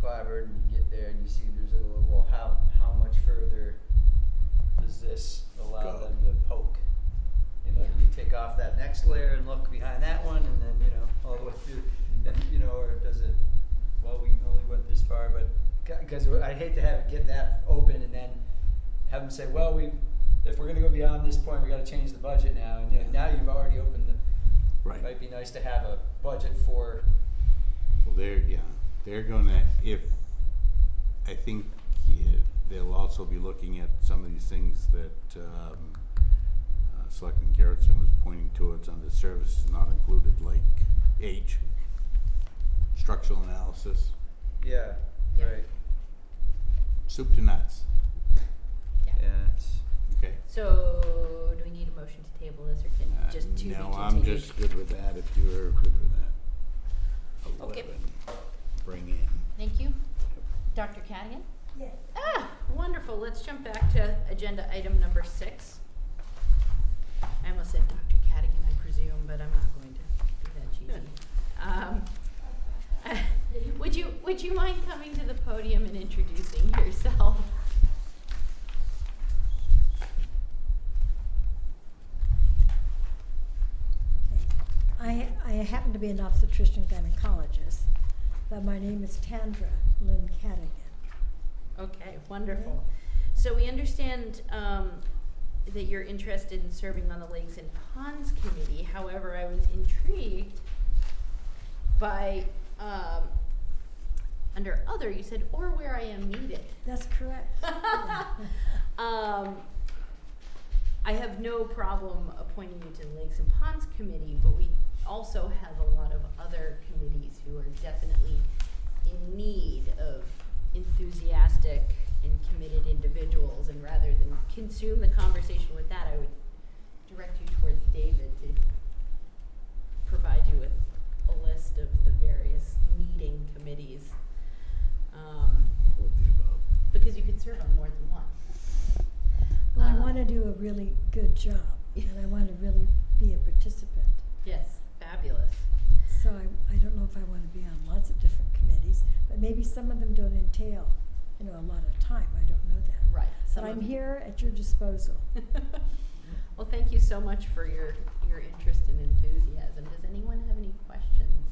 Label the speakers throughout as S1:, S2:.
S1: covered, and you get there and you see there's a little, well, how, how much further does this allow
S2: Go.
S1: them to poke? You know, do you take off that next layer and look behind that one, and then, you know, all the way through, and, you know, or does it, well, we only went this far, but, because I'd hate to have it get that open and then have them say, well, we, if we're gonna go beyond this point, we gotta change the budget now, and, you know, now you've already opened the,
S2: Right.
S1: might be nice to have a budget for.
S2: Well, they're yeah, they're gonna if I think yeah, they'll also be looking at some of these things that um, uh, Selectman Garrettson was pointing towards under services not included, like age, structural analysis,
S1: Yeah,
S3: Yeah.
S1: right.
S2: soup to nuts.
S3: Yeah.
S1: it's,
S2: Okay.
S3: So, do we need a motion to table this, or can
S2: Uh,
S3: just to be
S2: no,
S3: continued?
S2: I'm just good with that. If you're good with that,
S3: Okay.
S2: eleven, bring in.
S3: Thank you, Dr. Cadigan.
S4: Yes.
S3: Ah, wonderful. Let's jump back to agenda item number six. I almost said Dr. Cadigan, I presume, but I'm not going to be that cheesy. Um, would you Would you mind coming to the podium and introducing yourself?
S4: I, I happen to be an obstetrician gynecologist, but my name is Tandra Lynn Cadigan.
S3: Okay, wonderful. So we understand um, that you're interested in serving on the Lakes and Ponds Committee. However, I was intrigued by, um, under other, you said, or where I am needed.
S4: That's correct. Yeah.
S3: Um, I have no problem appointing you to the Lakes and Ponds Committee, but we also have a lot of other committees who are definitely in need of enthusiastic and committed individuals, and rather than consume the conversation with that, I would direct you towards David to provide you with a list of the various meeting committees. Um,
S2: What the above?
S3: because you could serve on more than one.
S4: Well, I
S3: Um,
S4: want to do a really good job, and I want to really be a participant.
S3: Yes, fabulous.
S4: So I, I don't know if I want to be on lots of different committees, but maybe some of them don't entail, you know, a lot of time. I don't know that.
S3: Right.
S4: But I'm here at your disposal.
S3: well, thank you so much for your your interest and enthusiasm. Does anyone have any questions?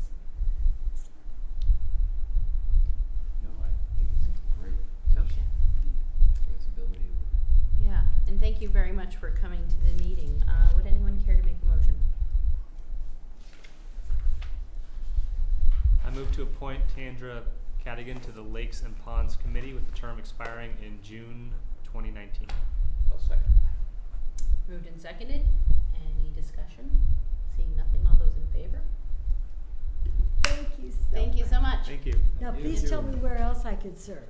S5: No, I think it's great.
S3: Okay.
S5: The Flexibility.
S3: Yeah, and thank you very much for coming to the meeting. Uh, would anyone care to make a motion?
S6: I move to appoint Tandra Cadigan to the Lakes and Ponds Committee with the term expiring in June 2019.
S5: I'll second
S3: Moved and seconded. Any discussion? Seeing nothing, all those in favor?
S4: Thank you so
S3: Thank you so much.
S6: Thank you.
S4: Now,
S5: Thank
S4: please
S5: you.
S4: tell me where else I could serve.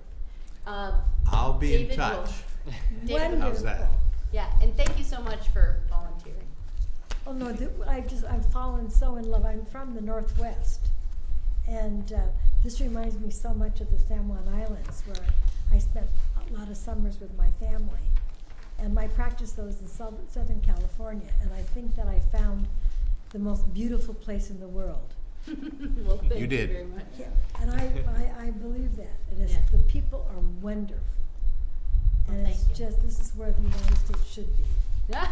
S3: Uh,
S2: I'll be
S3: David
S2: in
S3: will-
S2: touch.
S3: David will-
S2: How's that?
S4: Wonderful.
S3: Yeah, and thank you so much for volunteering.
S4: Oh no, th I just I've fallen so in love. I'm from the Northwest, and uh, this reminds me so much of the San Juan Islands, where I spent a lot of summers with my family, and my practice though is in South- Southern California, and I think that I found the most beautiful place in the world.
S3: well, thank you,
S2: did.
S3: very much.
S4: Yeah, and I, I, I believe that. It is,
S3: Yeah.
S4: The people are wonderful,
S3: Well,
S4: and it's
S3: thank you.
S4: just this is where the United States should be.
S3: Yeah.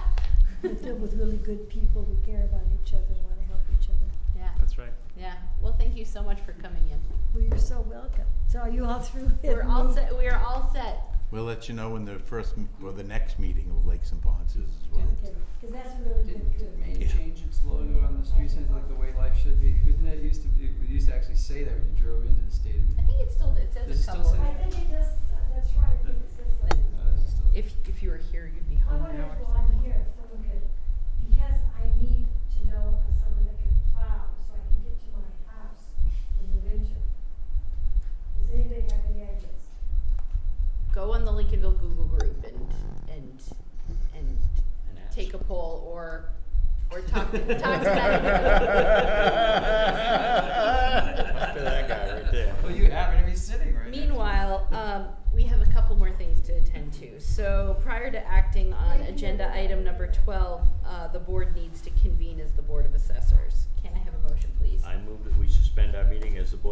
S4: We're filled with really good people who care about each other and want to help each other.
S3: yeah.
S6: That's right.
S3: Yeah. Well, thank you so much for coming in.
S4: Well, you're so welcome. So are you all through with
S3: We're all
S4: me?
S3: set. We are all set.
S2: We'll let you know when the first m- or the next meeting of Lakes and Ponds is as well.
S4: Okay, because that's a really
S5: Did,
S4: good
S5: did
S4: group.
S5: Maine
S2: Yeah.
S5: change its logo on the street signs like the way life should be? Wasn't that used to be, we used to actually say that when you drove into the state of
S3: I
S5: Maine?
S3: think it's still. It says
S5: Does it
S3: a
S5: still
S3: couple.
S5: say
S3: of-
S5: that?
S4: I think it does, uh, that's right, I think it says something.
S5: Uh, this is still-
S3: If if you were here, you'd be
S4: I
S3: home
S4: wonder
S3: now
S4: if
S3: or
S4: while I'm
S3: something.
S4: here, if someone could, because I need to know of someone that can plow so I can get to my house in the winter. Does anybody have any ideas?
S3: Go on the Lincolnville Google group and and and take a poll or or talk to, talk to that.
S2: Talk to that guy right there.
S5: Well, you happen to be sitting right next to him.
S3: Meanwhile, um, we have a couple more things to attend to. So prior to acting on agenda item number twelve, uh, the board needs to convene as the Board of Assessors. Can I have a motion, please?
S7: I move that we suspend our meeting as the Board